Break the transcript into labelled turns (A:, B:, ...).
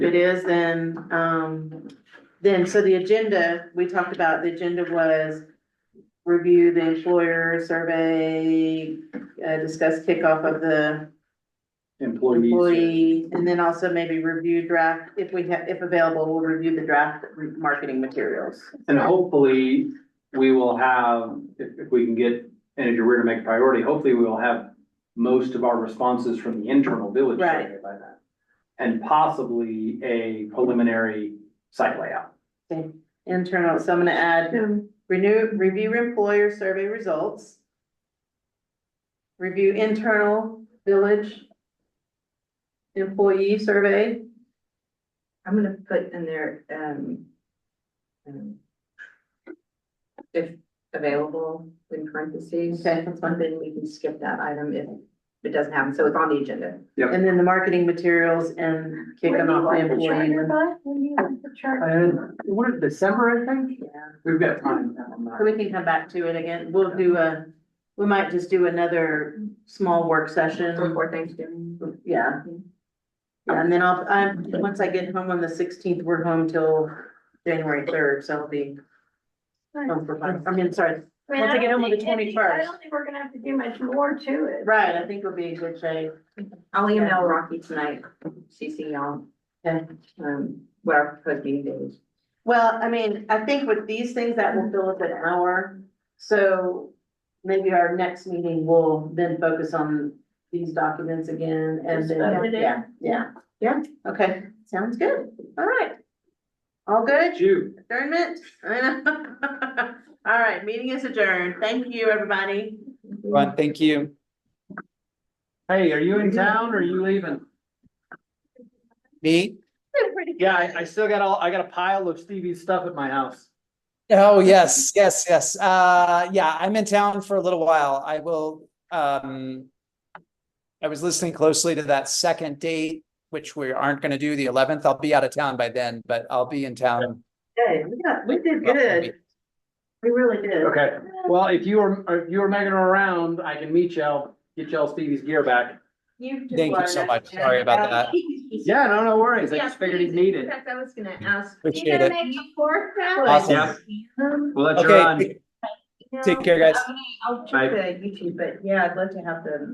A: It is, and, um, then, so the agenda, we talked about, the agenda was review the employer survey, uh, discuss kickoff of the
B: employees.
A: employee, and then also maybe review draft, if we have, if available, we'll review the draft marketing materials.
B: And hopefully, we will have, if, if we can get Anna Drewer to make priority, hopefully we will have most of our responses from the internal village
A: Right.
B: survey by then. And possibly a preliminary site layout.
A: Internal, so I'm gonna add
C: Um,
A: renew, review employer survey results. Review internal village employee survey.
C: I'm gonna put in there, um. um, If available in parentheses.
A: Okay, that's
C: And
A: one.
C: then we can skip that item if it doesn't happen, so it's on the agenda.
A: And then the marketing materials and kick them off the employee.
B: what, December, I think?
C: Yeah.
B: We've got time.
A: So we can come back to it again. We'll do a, we might just do another small work session.
C: Before Thanksgiving.
A: Yeah. Yeah, and then I'll, I, once I get home on the sixteenth, we're home till January third, so I'll be home for five, I mean, sorry.
D: I mean,
A: Once
D: I
A: I get
D: don't
A: home on the
D: think any-
A: 21st.
D: I don't think we're gonna have to do much more to it.
A: Right, I think we'll be in good shape.
C: I'll email Rocky tonight, CC y'all.
A: Okay.
C: Um, what our proposed meeting date is.
A: Well, I mean, I think with these things that will fill up an hour, so maybe our next meeting will then focus on these documents again and
D: Yeah.
A: then, yeah, yeah.
C: Yeah.
A: Okay, sounds good. All right. All good?
B: June.
A: Adjournment? I know. All right, meeting is adjourned. Thank you, everybody.
E: Ron, thank you.
B: Hey, are you in town or are you leaving?
E: Me?
B: Yeah, I, I still got all, I got a pile of Stevie's stuff at my house.
E: Oh, yes, yes, yes. Uh, yeah, I'm in town for a little while. I will, um. I was listening closely to that second date, which we aren't gonna do the eleventh. I'll be out of town by then, but I'll be in town.
A: Hey, we got, we did
E: good.
A: We really did.
B: Okay, well, if you were, if you were making around, I can meet y'all, get y'all Stevie's gear back.
D: just
E: Thank you
D: wanted
E: so
D: us
E: much.
D: to-
E: Sorry about that.
B: Yeah, no, no worries. I
D: Yeah,
B: just figured he'd
D: please.
B: need
D: In
B: it.
D: fact, I was gonna ask.
E: Appreciate
D: You
E: it.
D: gonna make the fourth round?
E: Awesome.
B: Yeah.
C: Um,
B: We'll let you
E: Okay,
B: run.
E: take- take care, guys.
C: I'll check the YouTube, but yeah, I'd love to have them.